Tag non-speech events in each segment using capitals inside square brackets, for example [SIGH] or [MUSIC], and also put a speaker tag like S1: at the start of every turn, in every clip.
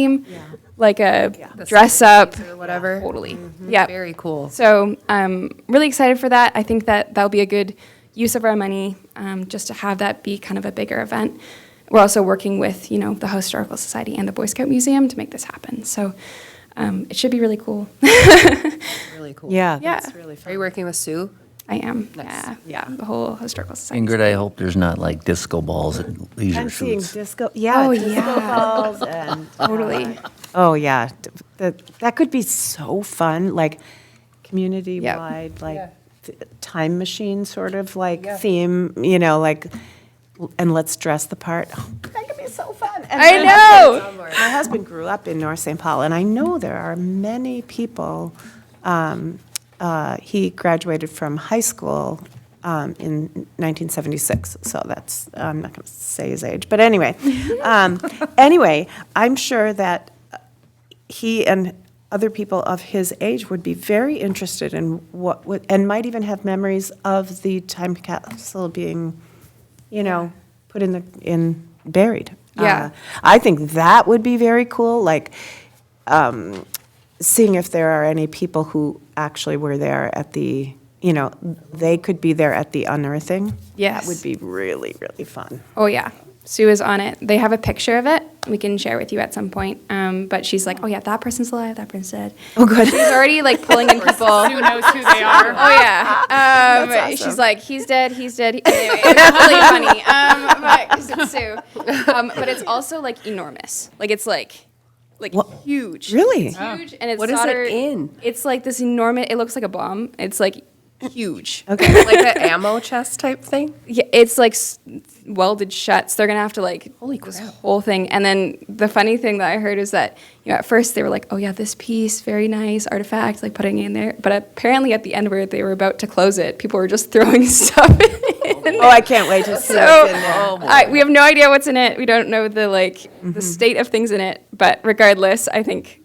S1: theme, like a dress up or whatever. Mm-hmm. Totally. Yeah.
S2: Very cool.
S1: So I'm really excited for that. I think that that'll be a good use of our money, um, just to have that be kind of a bigger event. We're also working with you know the Historical Society and the Boy Scout Museum to make this happen. So um, it should be really cool. [LAUGHS]
S2: Really cool.
S3: Yeah.
S1: yeah,
S2: Are you working with Sue?
S1: I am. Yeah, yeah. The whole Historical Society.
S4: Ingrid, I hope there's not like disco balls at leisure
S3: I'm seeing
S4: shoots.
S3: disco, yeah.
S1: Oh,
S3: disco
S1: yeah.
S3: balls and-
S1: [LAUGHS] Totally.
S3: Oh, yeah. D- That, that could be so fun, like, community-wide, like, th- time machine sort of like theme, you know, like, l- and let's dress the part. That could be so fun. And
S1: I
S3: my
S1: know.
S3: husband- [LAUGHS] My husband grew up in North St. Paul, and I know there are many people, um, uh, he graduated from high school um, in 1976, so that's, I'm not going to say his age, but anyway. Um, Anyway, I'm sure that he and other people of his age would be very interested in what, would- and might even have memories of the time capsule being, you know, put in the, in, buried.
S1: Yeah.
S3: Uh, I think that would be very cool, like, um, seeing if there are any people who actually were there at the, you know, they could be there at the unearthing.
S1: Yes.
S3: That would be really, really fun.
S1: Oh yeah, Sue is on it. They have a picture of it. We can share with you at some point. Um, but she's like, oh yeah, that person's alive. That person's dead. Oh good. She's already like pulling in people. Sue knows who they are. Oh yeah. Um, She's like, he's dead. He's dead. he-" Anyway, it's really funny. Um, but 'cause it's Sue. Um, but it's also like enormous. Like it's like. Like huge,
S3: Really?
S1: It's huge, and it's
S2: What is it
S1: soldered-
S2: in?
S1: It's like this enormous. It looks like a bomb. It's like huge.
S3: Okay.
S2: [LAUGHS] Like that ammo chest type thing?
S1: Yeah, it's like s- welded shut. So they're gonna have to like holy this whole thing. And then the funny thing that I heard is that you know at first they were like, oh yeah, this piece, very nice artifact, like putting it in there. But apparently at the end where they were about to close it, people were just [LAUGHS] throwing stuff in.
S3: [LAUGHS] Oh, I
S1: [LAUGHS]
S3: can't wait to see
S1: So
S3: what's in there.
S1: I, we have no idea what's in it. We don't know the like the state of things in it. But regardless, I think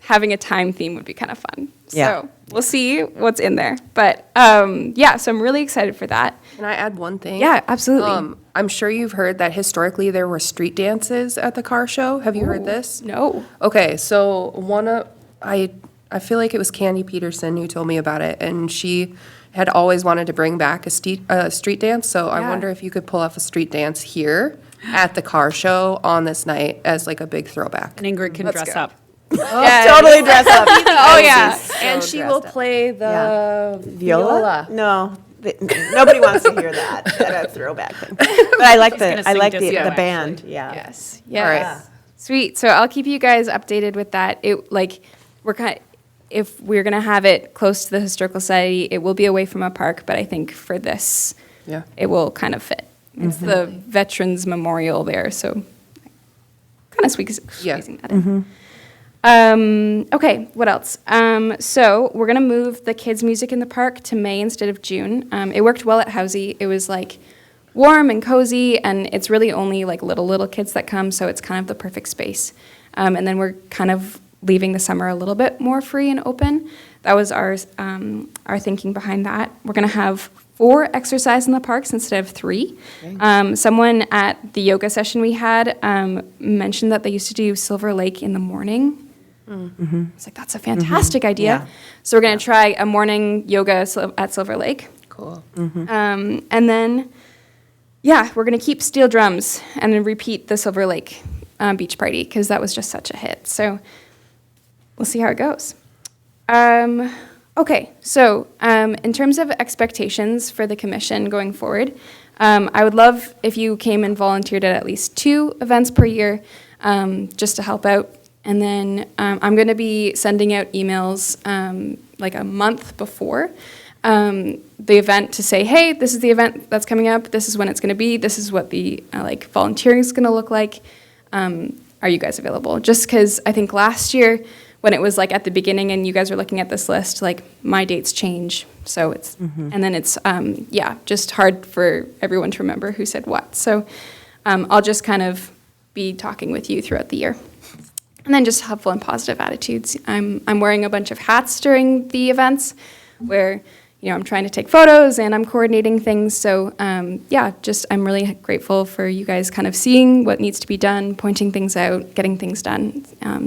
S1: having a time theme would be kind of fun.
S3: Yeah.
S1: So we'll see what's in there. But um, yeah, so I'm really excited for that.
S2: Can I add one thing?
S1: Yeah, absolutely.
S2: Um, I'm sure you've heard that historically there were street dances at the car show. Have you heard this?
S1: No.
S2: Okay, so one of I I feel like it was Candy Peterson who told me about it, and she had always wanted to bring back a street a street dance. So I
S1: Yeah.
S2: wonder if you could pull off a street dance here at the car show on this night as like a big throwback.
S5: And Ingrid can dress up.
S1: Yes.
S3: Totally dress up.
S1: [LAUGHS] Oh yeah.
S2: and she will play the
S3: Viola? No, th- nobody wants to hear that, that
S1: [LAUGHS]
S3: throwback thing. But I like
S5: gonna
S3: the, I
S5: sing
S3: like the,
S5: disco,
S3: the
S5: actually.
S3: band, yeah.
S1: Yes.
S2: right.
S1: Yes. Sweet. So I'll keep you guys updated with that. It like we're kind if we're gonna have it close to the historical society, it will be away from a park, but I think for this,
S2: Yeah.
S1: it will kind of fit. It's the Veterans Memorial there, so kind of squeeze,
S2: Yeah.
S1: squeezing that in. Um, okay, what else? Um, so we're gonna move the kids' music in the park to May instead of June. Um, it worked well at Housey. It was like warm and cozy, and it's really only like little little kids that come, so it's kind of the perfect space. Um, and then we're kind of leaving the summer a little bit more free and open. That was our um, our thinking behind that. We're gonna have four exercise in the parks instead of three. Um, someone at the yoga session we had um, mentioned that they used to do Silver Lake in the morning. It's like that's a fantastic idea.
S3: Mm-hmm. Yeah.
S1: So we're gonna try a morning yoga sil- at Silver Lake,
S2: Cool.
S1: um, and then yeah, we're gonna keep steel drums and then repeat the Silver Lake um, beach party because that was just such a hit. So we'll see how it goes. Um, okay, so um, in terms of expectations for the commission going forward, um, I would love if you came and volunteered at at least two events per year um, just to help out. And then um, I'm going to be sending out emails um, like a month before um, the event to say, hey, this is the event that's coming up. This is when it's going to be. This is what the uh, like volunteering is going to look like um, are you guys available? Just because I think last year, when it was like at the beginning and you guys were looking at this list, like my dates change. So it's, and then it's, um, yeah, just hard for everyone to remember who said what. So um, I'll just kind of be talking with you throughout the year. And then just helpful and positive attitudes. I'm, I'm wearing a bunch of hats during the events where, you know, I'm trying to take photos and I'm coordinating things. So um, yeah, just I'm really grateful for you guys kind of seeing what needs to be done, pointing things out, getting things done. Um,